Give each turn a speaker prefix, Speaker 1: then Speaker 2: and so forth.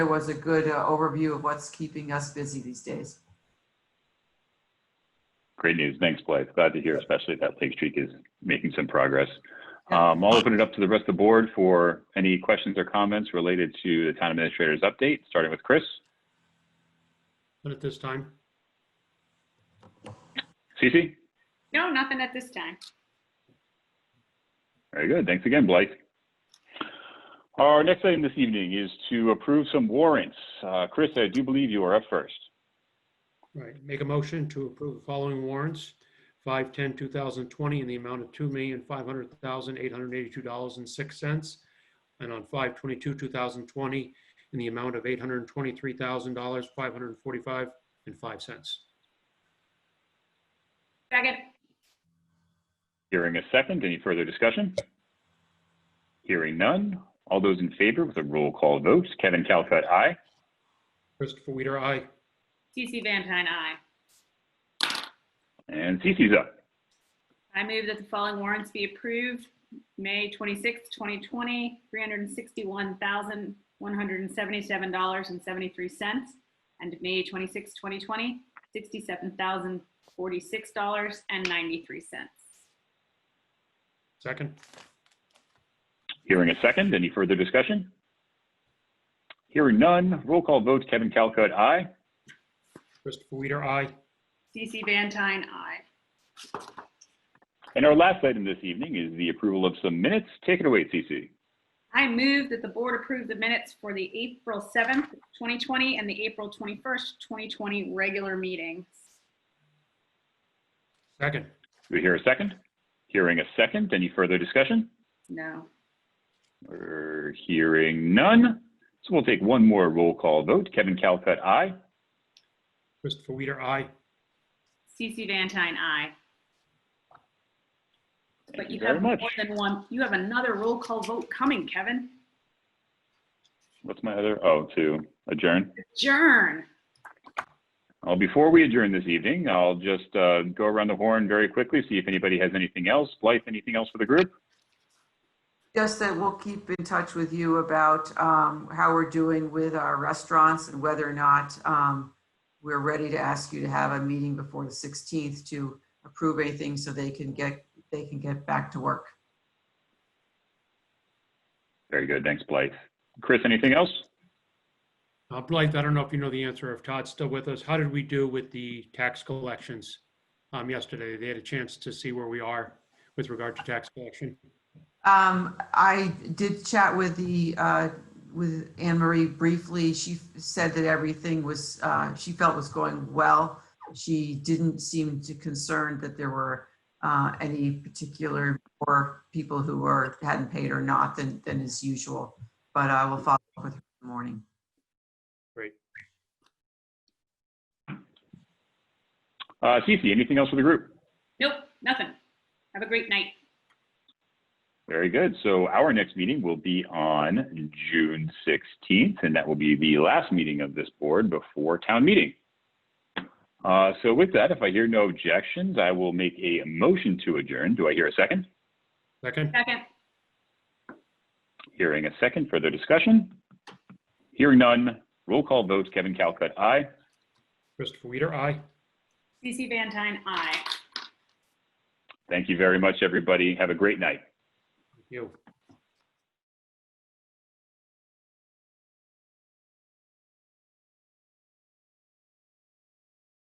Speaker 1: was a good uh, overview of what's keeping us busy these days.
Speaker 2: Great news. Thanks, Blythe. Glad to hear, especially that Lake Streak is making some progress. Um, I'll open it up to the rest of the board for any questions or comments related to the town administrator's update, starting with Chris.
Speaker 3: But at this time,
Speaker 2: Cece?
Speaker 4: No, nothing at this time.
Speaker 2: Very good. Thanks again, Blythe. Our next item this evening is to approve some warrants. Uh, Chris, I do believe you are up first.
Speaker 3: right, make a motion to approve the following warrants. 5/10/2020 in the amount of $2,500,882.06. And on 5/22/2020 in the amount of $823,545 and 5 cents.
Speaker 4: Second,
Speaker 2: Hearing a second, any further discussion? Hearing none. All those in favor with a roll call vote, Kevin Calcutt, aye.
Speaker 3: Christopher Weider, aye.
Speaker 4: TC Van Tine, aye.
Speaker 2: And Cece's up.
Speaker 4: I move that the following warrants be approved. May 26, 2020, $361,177.73. And May 26, 2020, $67,046.93.
Speaker 3: Second,
Speaker 2: Hearing a second, any further discussion? Hearing none, roll call vote, Kevin Calcutt, aye.
Speaker 3: Christopher Weider, aye.
Speaker 4: CC Van Tine, aye.
Speaker 2: And our last item this evening is the approval of some minutes. Take it away, Cece.
Speaker 4: I move that the board approve the minutes for the April seventh, 2020, and the April twenty first, 2020 regular meetings.
Speaker 3: Second,
Speaker 2: Do we hear a second? Hearing a second, any further discussion?
Speaker 4: No.
Speaker 2: We're hearing none. So we'll take one more roll call vote. Kevin Calcutt, aye.
Speaker 3: Christopher Weider, aye.
Speaker 4: CC Van Tine, aye.
Speaker 2: Thank
Speaker 4: But
Speaker 2: you
Speaker 4: you
Speaker 2: very
Speaker 4: have more
Speaker 2: much.
Speaker 4: than one, you have another roll call vote coming, Kevin.
Speaker 2: What's my other, oh, to adjourn?
Speaker 4: Adjourn.
Speaker 2: Well, before we adjourn this evening, I'll just uh, go around the horn very quickly, see if anybody has anything else. Blythe, anything else for the group?
Speaker 1: Just that we'll keep in touch with you about um, how we're doing with our restaurants and whether or not um, we're ready to ask you to have a meeting before the 16th to approve anything so they can get, they can get back to work.
Speaker 2: Very good. Thanks, Blythe. Chris, anything else?
Speaker 3: Uh, Blythe, I don't know if you know the answer, if Todd's still with us. How did we do with the tax collections um, yesterday? They had a chance to see where we are with regard to tax collection.
Speaker 1: Um, I did chat with the, uh, with Anne Marie briefly. She said that everything was, uh, she felt was going well. She didn't seem to concerned that there were, uh, any particular or people who were, hadn't paid or not than, than is usual. But I will follow up with her in the morning.
Speaker 2: Uh, Cece, anything else for the group?
Speaker 4: Nope, nothing. Have a great night.
Speaker 2: Very good. So our next meeting will be on June 16th, and that will be the last meeting of this board before town meeting. Uh, so with that, if I hear no objections, I will make a motion to adjourn. Do I hear a second?
Speaker 3: Second,
Speaker 4: Second,
Speaker 2: Hearing a second, further discussion? Hearing none, roll call vote, Kevin Calcutt, aye.
Speaker 3: Christopher Weider, aye.
Speaker 4: CC Van Tine, aye.
Speaker 2: Thank you very much, everybody. Have a great night.
Speaker 3: You.